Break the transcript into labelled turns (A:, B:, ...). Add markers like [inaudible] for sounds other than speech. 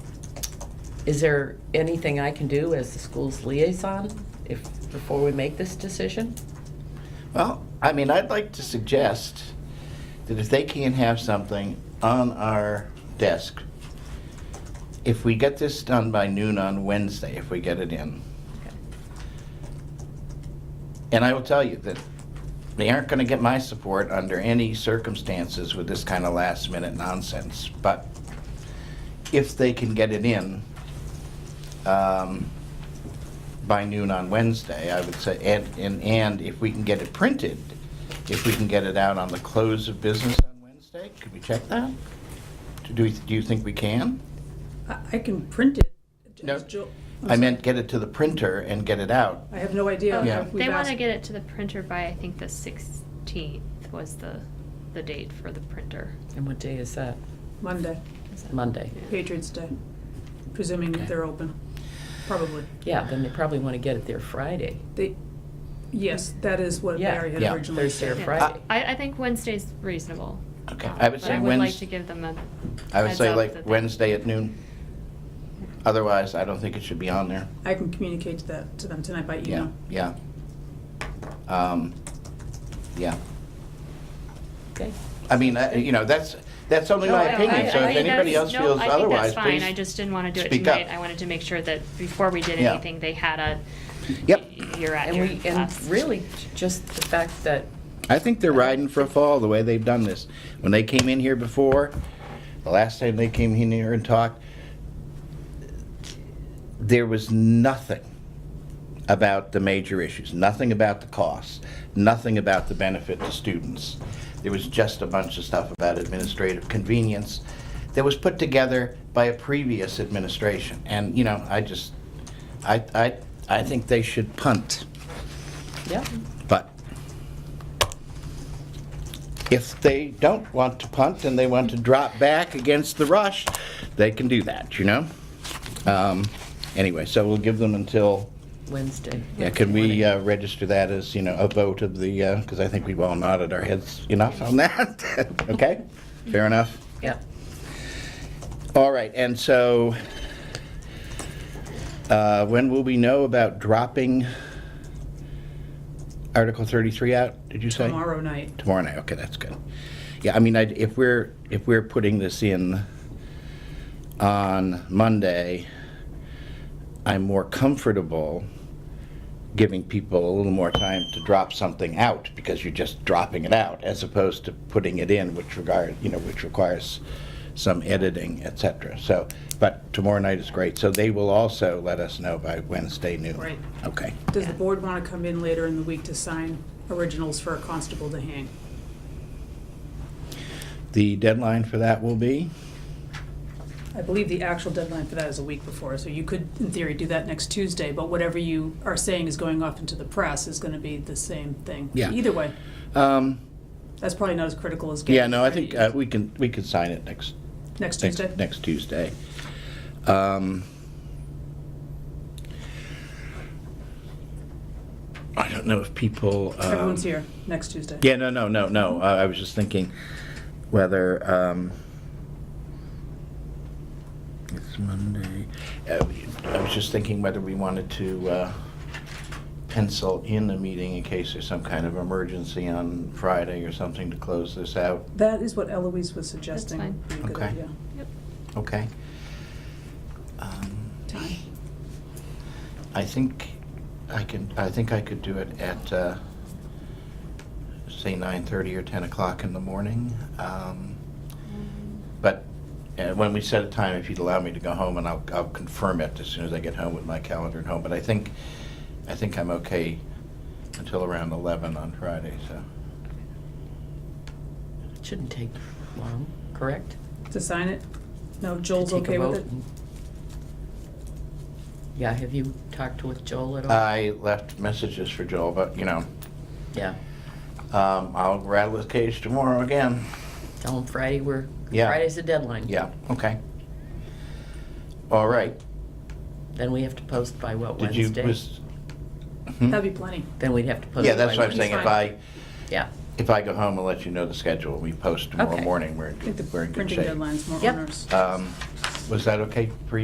A: Is there anything I can do as the school's liaison if, before we make this decision?
B: Well, I mean, I'd like to suggest that if they can have something on our desk, if we get this done by noon on Wednesday, if we get it in, and I will tell you that they aren't going to get my support under any circumstances with this kind of last-minute nonsense, but if they can get it in um, by noon on Wednesday, I would say, and, and, and if we can get it printed, if we can get it out on the close of business on Wednesday, could we check that? Do, we- do you think we can?
C: I I can print it.
B: No.
C: As Jill-
B: I meant get it to the printer and get it out.
C: I have no idea.
B: Oh, Yeah.
C: We've
D: They want to
C: asked-
D: get it to the printer by, I think, the 16th was the, the date for the printer.
A: And what day is that?
C: Monday,
D: Is that-
A: Monday.
C: Patriots' Day, presuming that they're open, probably.
A: Yeah, then they probably want to get it there Friday.
C: They, yes, that is what
A: Yeah.
C: Barry had
B: Yeah.
C: originally
A: Thursday or
C: said.
D: Yeah.
A: Friday.
D: I, I think Wednesday's reasonable. Um,
B: Okay, I would
D: But
B: say
D: I would like to
B: Wednesday.
D: give them a.
B: I would
D: heads
B: say
D: up
B: like
D: that they-
B: Wednesday at noon. Otherwise, I don't think it should be on there.
C: I can communicate to that, to them tonight by
B: Yeah,
C: email.
B: yeah. Um, Yeah.
A: Okay.
B: I mean, I- you know, that's, that's only my
D: No, I-
B: opinion,
D: I-
B: so
D: I
B: if
D: think
B: anybody
D: that's-
B: else
D: no,
B: feels
D: I think that's
B: otherwise,
D: fine.
B: please.
D: I just didn't want to do it
B: speak up.
D: tonight. I wanted to make sure that before we did
B: Yeah.
D: anything, they had a.
B: Yep.
D: You're at
A: And
D: your
A: we, and
D: last-
A: really, just the fact that,
B: I think they're riding for a fall the way they've done this. When they came in here before, the last time they came in here and talked, there was nothing about the major issues, nothing about the costs, nothing about the benefit to students. There was just a bunch of stuff about administrative convenience that was put together by a previous administration. And, you know, I just, I, I, I think they should punt.
A: yeah,
B: But if they don't want to punt and they want to drop back against the rush, they can do that, you know? Um, Anyway, so we'll give them until,
A: Wednesday.
B: yeah, can we uh, register that as, you know, a vote of the, because I think we've all nodded our heads enough on that. [laughs] Okay? Fair enough?
A: Yeah.
B: All right, and so uh, when will we know about dropping Article 33 out, did you say?
C: Tomorrow night.
B: Tomorrow night, okay, that's good. Yeah, I mean, I'd- if we're, if we're putting this in on Monday, I'm more comfortable giving people a little more time to drop something out, because you're just dropping it out, as opposed to putting it in, which regard, you know, which requires some editing, et cetera. So, but tomorrow night is great, so they will also let us know by Wednesday noon.
C: Right.
B: Okay.
C: Does the board want to come in later in the week to sign originals for a constable to hang?
B: The deadline for that will be?
C: I believe the actual deadline for that is a week before, so you could, in theory, do that next Tuesday, but whatever you are saying is going off into the press is going to be the same thing.
B: Yeah.
C: Either way,
B: Um,
C: that's probably not as critical as getting.
B: Yeah, no, I
C: it ready
B: think uh, we can, we can sign it next,
C: Next
B: next-
C: Tuesday?
B: next Tuesday. Um, I don't know if people. um,
C: Everyone's here, next Tuesday.
B: Yeah, no, no, no, no. I I was just thinking whether, um, it's Monday. Uh, I was just thinking whether we wanted to uh, pencil in a meeting in case there's some kind of emergency on Friday or something to close this out.
C: That is what Eloise was suggesting.
D: fine.
C: Be a good
B: Okay.
C: idea.
D: Yep.
B: Okay. Um,
C: Time.
B: I think I can, I think I could do it at, uh, say, 9:30 or 10 o'clock in the morning. Um, But uh, when we set a time, if you'd allow me to go home, and I'll I'll confirm it as soon as I get home with my calendar at home. But I think, I think I'm okay until around 11 on Friday, so.
A: It Shouldn't take long, correct?
C: To sign it? No,
A: To
C: Joel's
A: take a
C: okay with
A: vote
C: it?
B: Hmm?
A: and- Yeah, have you talked with Joel at all?
B: I left messages for Joel, but, you know,
A: Yeah.
B: um, I'll rattle his cage tomorrow again.
A: Tell him Friday, we're,
B: Yeah.
A: Friday's the deadline.
B: Yeah, okay. All right.
A: Then we have to post by what,
B: Did you,
A: Wednesday?
B: was- Hmm?
C: That'd be plenty.
A: Then we'd have to post.
B: Yeah, that's
A: by
B: what I'm saying. If
A: Wednesday.
B: I,
A: Yeah,
B: if I go home and let you know the schedule, we post tomorrow
A: Okay.
B: morning, we're, in
C: I think
B: good-
C: the
B: we're in good
C: printing
B: shape.
C: deadline's more
A: Yep.
C: onerous.
B: Um, Was that okay for you?